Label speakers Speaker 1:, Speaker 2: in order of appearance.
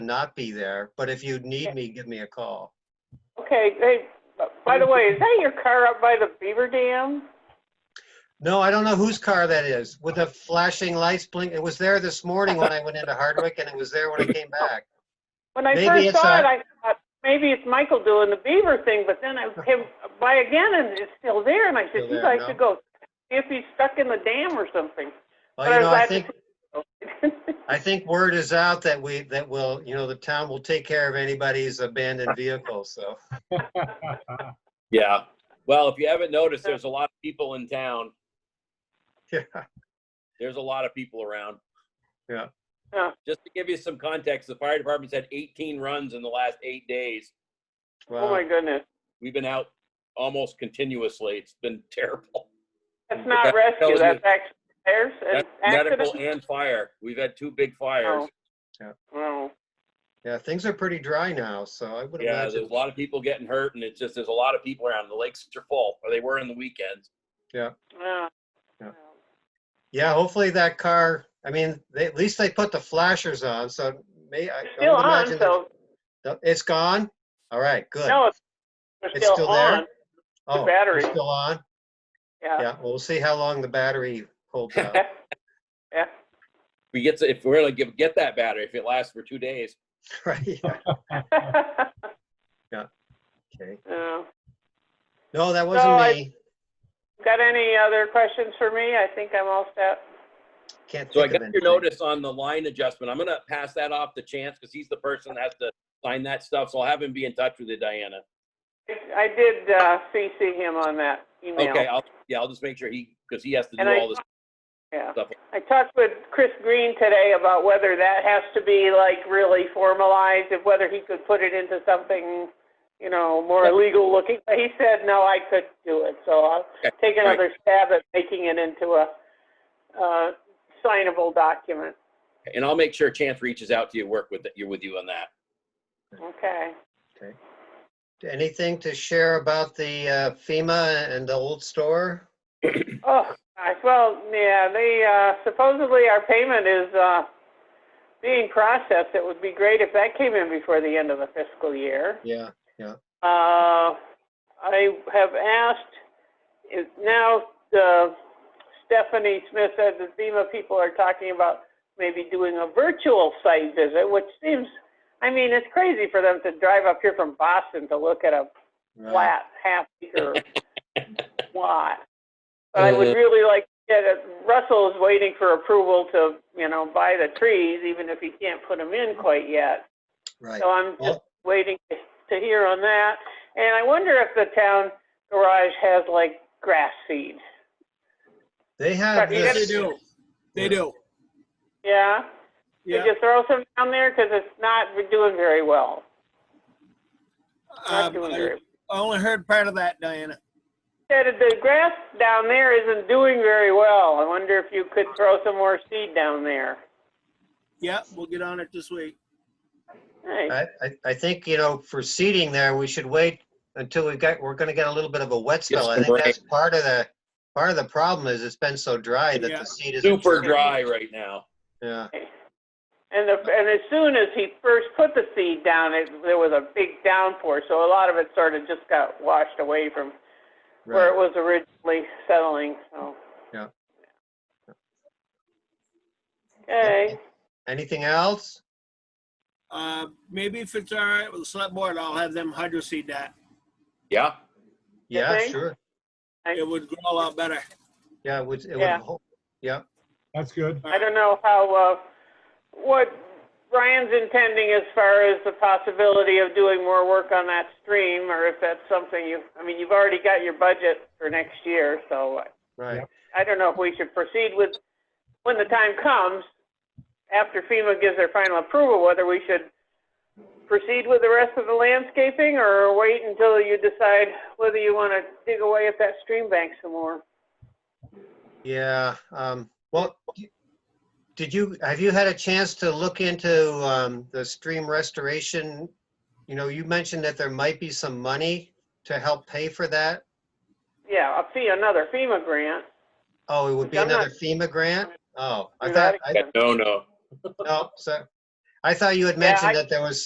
Speaker 1: not be there, but if you need me, give me a call.
Speaker 2: Okay, hey, by the way, is that your car up by the beaver dam?
Speaker 1: No, I don't know whose car that is with the flashing lights blink. It was there this morning when I went into Hardwick and it was there when I came back.
Speaker 2: When I
Speaker 1: Maybe
Speaker 2: first
Speaker 1: it's
Speaker 2: saw it,
Speaker 1: a-
Speaker 2: I thought, maybe it's Michael doing the beaver thing, but then I came by again and it's still there, and I said,
Speaker 1: Still
Speaker 2: geez,
Speaker 1: there,
Speaker 2: I
Speaker 1: no?
Speaker 2: should go see if he's stuck in the dam or something.
Speaker 1: Well, you know, I think,
Speaker 2: think.
Speaker 1: I think word is out that we, that will, you know, the town will take care of anybody's abandoned vehicle, so.
Speaker 3: Yeah. Well, if you haven't noticed, there's a lot of people in town.
Speaker 1: Yeah.
Speaker 3: There's a lot of people around.
Speaker 1: Yeah.
Speaker 2: Yeah.
Speaker 3: Just to give you some context, the fire department's had 18 runs in the last eight days.
Speaker 2: Oh,
Speaker 1: Wow.
Speaker 2: my goodness.
Speaker 3: We've been out almost continuously. It's been terrible.
Speaker 2: That's
Speaker 3: But
Speaker 2: not
Speaker 3: that
Speaker 2: rescue,
Speaker 3: tells you-
Speaker 2: that's actually fires and
Speaker 3: That's medical
Speaker 2: accidents.
Speaker 3: and fire. We've had two big fires.
Speaker 2: Oh. Wow.
Speaker 1: Yeah, things are pretty dry now, so I would
Speaker 3: Yeah,
Speaker 1: imagine.
Speaker 3: there's a lot of people getting hurt and it's just, there's a lot of people around. The lakes are full, or they were in the weekends.
Speaker 2: Yeah.
Speaker 1: Yeah. Yeah, hopefully that car, I mean, they, at least they put the flashers on, so may, I I would
Speaker 2: Still on,
Speaker 1: imagine. that-
Speaker 2: so,
Speaker 1: No, It's gone? All right, good.
Speaker 2: no, it's-
Speaker 1: It's
Speaker 2: they're still
Speaker 1: still there?
Speaker 2: on.
Speaker 1: Oh, they're
Speaker 2: battery.
Speaker 1: Still on?
Speaker 2: Yeah.
Speaker 1: Yeah, well, we'll see how long the battery holds out.
Speaker 2: Yeah.
Speaker 3: We get to, if we're gonna give, get that battery, if it lasts for two days.
Speaker 1: Right, yeah, okay.
Speaker 2: Yeah.
Speaker 1: No, that
Speaker 2: No,
Speaker 1: wasn't
Speaker 2: I-
Speaker 1: me.
Speaker 2: Got any other questions for me? I think I'm all set.
Speaker 1: Can't
Speaker 3: So I
Speaker 1: think
Speaker 3: got
Speaker 1: of
Speaker 3: your
Speaker 1: anything.
Speaker 3: notice on the line adjustment. I'm gonna pass that off to Chance because he's the person that has to sign that stuff. So I'll have him be in touch with you, Diana.
Speaker 2: I did uh, CC him on that email.
Speaker 3: Okay, I'll, yeah, I'll just make sure he, because he has to do
Speaker 2: And I-
Speaker 3: all this
Speaker 2: Yeah.
Speaker 3: stuff.
Speaker 2: I talked with Chris Green today about whether that has to be like really formalized, if whether he could put it into something, you know, more legal looking. But he said, no, I could do it. So I'll
Speaker 3: Okay,
Speaker 2: take
Speaker 3: right.
Speaker 2: another stab at making it into a uh, signable document.
Speaker 3: And I'll make sure Chance reaches out to you, work with, you with you on that.
Speaker 2: Okay.
Speaker 1: Anything to share about the uh, FEMA and the old store?
Speaker 2: Oh, gosh, well, yeah, they, uh, supposedly our payment is, uh, being processed. It would be great if that came in before the end of the fiscal year.
Speaker 1: Yeah,
Speaker 2: Uh, I have asked, is now, uh, Stephanie Smith said that FEMA people are talking about maybe doing a virtual site visit, which seems, I mean, it's crazy for them to drive up here from Boston to look at a
Speaker 1: right.
Speaker 2: flat half acre lot. But I
Speaker 1: Uh,
Speaker 2: would really like, yeah, that Russell is waiting for approval to, you know, buy the trees, even if he can't put them in quite yet.
Speaker 1: right.
Speaker 2: So I'm just
Speaker 1: Well,
Speaker 2: waiting to to hear on that. And I wonder if the town garage has like grass seed.
Speaker 1: They have
Speaker 2: You gotta
Speaker 4: They
Speaker 1: this,
Speaker 4: do. They do.
Speaker 2: Yeah? Did
Speaker 4: Yeah.
Speaker 2: you throw some down there? Because it's not doing very well. Not
Speaker 4: Um,
Speaker 2: doing
Speaker 4: I
Speaker 2: very.
Speaker 4: I only heard part of that, Diana.
Speaker 2: Said that the grass down there isn't doing very well. I wonder if you could throw some more seed down there.
Speaker 4: Yeah, we'll get on it this week.
Speaker 2: Nice.
Speaker 1: I, I- I think, you know, for seating there, we should wait until we get, we're gonna get a little bit of a wet spell. I
Speaker 3: some
Speaker 1: think
Speaker 3: rain.
Speaker 1: that's part of the, part of the problem is it's been so dry that
Speaker 4: Yeah.
Speaker 1: the seed is.
Speaker 3: Super dry right now.
Speaker 1: Yeah,
Speaker 2: And, the, and as soon as he first put the seed down, it, there was a big downpour, so a lot of it sort of just got washed away from where
Speaker 1: right.
Speaker 2: it was originally settling, so.
Speaker 1: Yeah.
Speaker 2: Okay,
Speaker 1: Anything else?
Speaker 4: Uh, maybe if it's all right with the select board, I'll have them hydro seed that.
Speaker 3: Yeah,
Speaker 1: Yeah,
Speaker 2: think?
Speaker 1: sure.
Speaker 4: It would grow a lot better.
Speaker 1: Yeah, it would, it would,
Speaker 2: Yeah.
Speaker 1: ho- yeah,
Speaker 5: That's good.
Speaker 2: I don't know how, uh, what Ryan's intending as far as the possibility of doing more work on that stream, or if that's something you, I mean, you've already got your budget for next year, so
Speaker 1: right.
Speaker 2: I don't know if we should proceed with, when the time comes, after FEMA gives their final approval, whether we should proceed with the rest of the landscaping or wait until you decide whether you want to dig away at that stream bank some more.
Speaker 1: Yeah, um, well, did you, have you had a chance to look into, um, the stream restoration? You know, you mentioned that there might be some money to help pay for that.
Speaker 2: Yeah, a fee, another FEMA grant.
Speaker 1: Oh, it would be
Speaker 2: I'm not-
Speaker 1: another FEMA grant? Oh, I
Speaker 2: Do
Speaker 1: thought,
Speaker 2: that
Speaker 1: I,
Speaker 2: again.
Speaker 3: no, no.
Speaker 1: no, so, I thought you had
Speaker 2: Yeah, I-
Speaker 1: mentioned that there was